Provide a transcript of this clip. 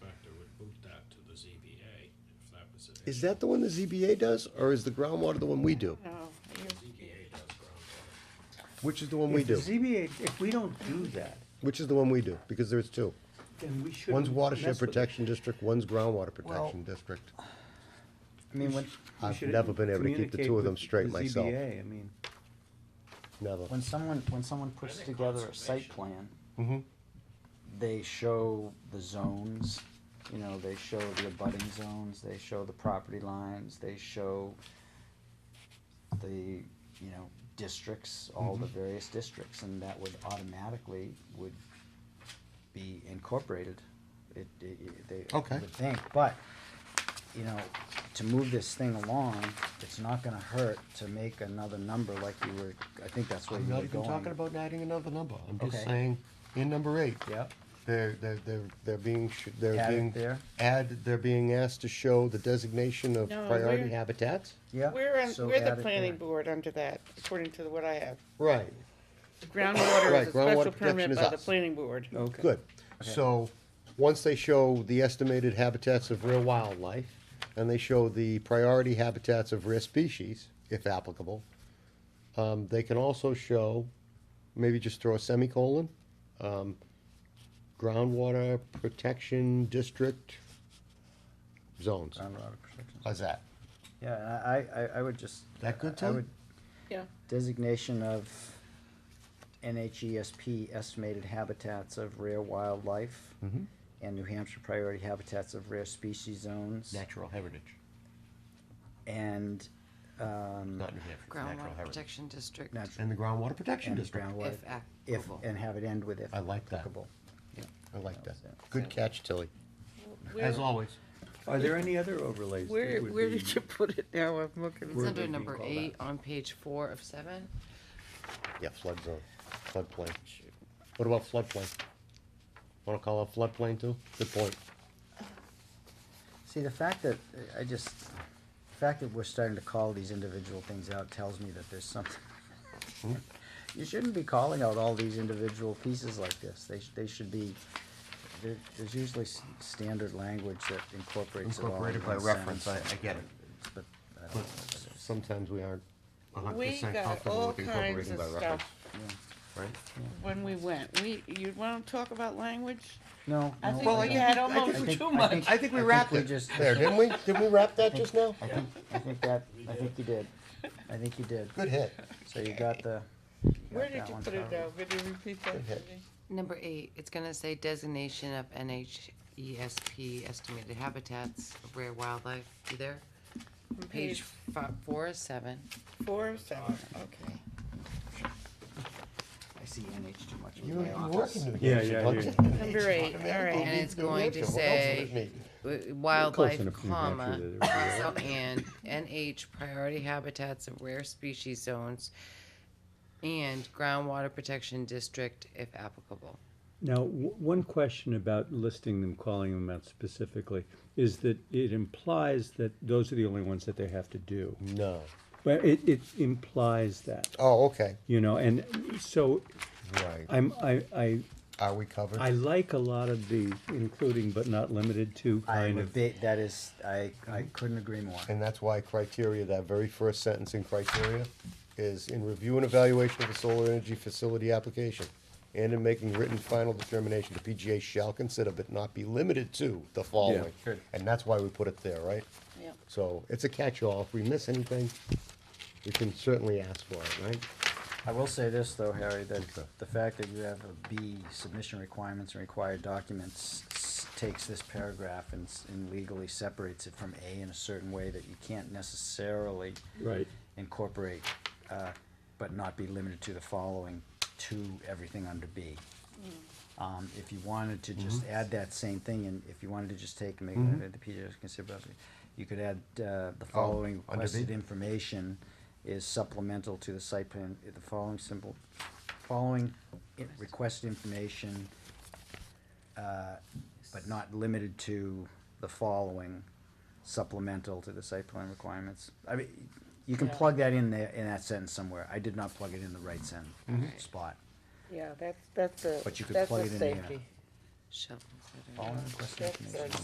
Is that the one the ZBA does, or is the groundwater the one we do? No, you- Which is the one we If the do? ZBA, if we don't do that, Which is the one we do? Because there's two. then we shouldn't. One's watershed mess with it. protection district, one's groundwater Well, protection district. I mean, when. we I've should never been able to keep the communicate two of them with straight the myself. ZBA, I mean, Never. When someone, when someone puts together a site plan, Mhm. they show the zones, you know, they show the abutting zones, they show the property lines, they show the, you know, districts, all the various districts, and that would automatically would be incorporated. It, it, it- they, I Okay. would think, but, you know, to move this thing along, it's not gonna hurt to make another number like you were, I think that's where I'm you not were even going. talking about adding another number. I'm just Okay. saying, in number eight, Yep, they're, they're, they're, they're being, sh- they're Add it being. there. Add, they're being asked to show the designation of No, priority we're- habitats? yep. We're, in- so we're add it the there. planning board under that, according to what I have. Right, Groundwater Right, is groundwater a special protection permit is by the us. planning board. okay. good. Okay. So, once they show the estimated habitats of rare wildlife, and they show the priority habitats of rare species, if applicable, um, they can also show, maybe just throw a semicolon, um, groundwater protection district zones. Groundwater protection. How's that? Yeah, and I, I, I- I would just. That good, I Tom? would- Yeah. Designation of NHESP estimated habitats of rare wildlife. Mm-hmm. And New Hampshire priority habitats of rare species zones. Natural heritage, And, um, New Hampshire, Groundwater Protection District, nat- And the groundwater protection and district. groundwater. if If, applicable. and have it end with if I like that. applicable. I like that. That was it. Good catch, Tilly, Where, as always. Are there any other overlays? that where, would where be- did you put it now? I'm It's Where looking. did under you number call eight that? on page four of seven. Yeah, flood zone, floodplain. What about floodplain? Wanna call it floodplain too? Good point. See, the fact that, I just, the fact that we're starting to call these individual things out tells me that there's something. You shouldn't be calling out all these individual pieces like this. They, sh- they should be, there, there's usually s- standard language that incorporates it all in one sentence. get it. But I But don't know what it is. sometimes we aren't a hundred We percent got comfortable all with kinds incorporating of by reference, stuff right? when we went. We, you wanna talk about language? No, I no, think I we don't. had I almost think- too I much. think- I think we I wrapped we it just- there, didn't we? Didn't we wrap that just now? I think, I think that, I think you did. I think you did. Good hit. So you got the. got Where did that you one put it uh, covered. down? Could you repeat that for ahead. me? Number eight, it's gonna say designation of NHESP estimated habitats of rare wildlife. You there? From Page fi- four of seven. Four of seven, okay. I see NH too much. in You my you office. working today. Yeah, yeah, yeah. Number eight, all right. And it's going to say w- wildlife, enough to New Hampshire comma, that it would be also and NH priority habitats of rare species zones and groundwater protection district if applicable. Now, w- one question about listing them, calling them out specifically, is that it implies that those are the only ones that they have to do. No. But it, it implies that, Oh, okay, you know, and so right. I'm, I, I, Are we covered? I like a lot of the including but not limited to I'm kind a of. bit, that is, I, I couldn't agree more. And that's why criteria, that very first sentence in criteria is in review and evaluation of the solar energy facility application and in making written final determination, the PGA shall consider but not be limited to the following. good. And that's why we put it there, right? Yep. So it's a catch-all. If we miss anything, we can certainly ask for it, right? I will say this though, Harry, that the fact that you have a B, submission requirements and required documents, s- takes this paragraph and s- and legally separates it from A in a certain way that you can't necessarily Right. incorporate, uh, but not be limited to the following, to everything under B. Um, if you wanted to just Mm-hmm. add that same thing, and if you wanted to just take, make, uh, the PJ's consider, you could add, uh, the following Oh, under B? requested information is supplemental to the site plan, the following simple, following i- requested information, uh, but not limited to the following supplemental to the site plan requirements. I mean, you can Yeah. plug that in there, in that sentence somewhere. I did not plug it in the right sentence, spot. Yeah, that's, that's But a, you could that's plug a it in there. safety. Shall consider. Following requested That's information. a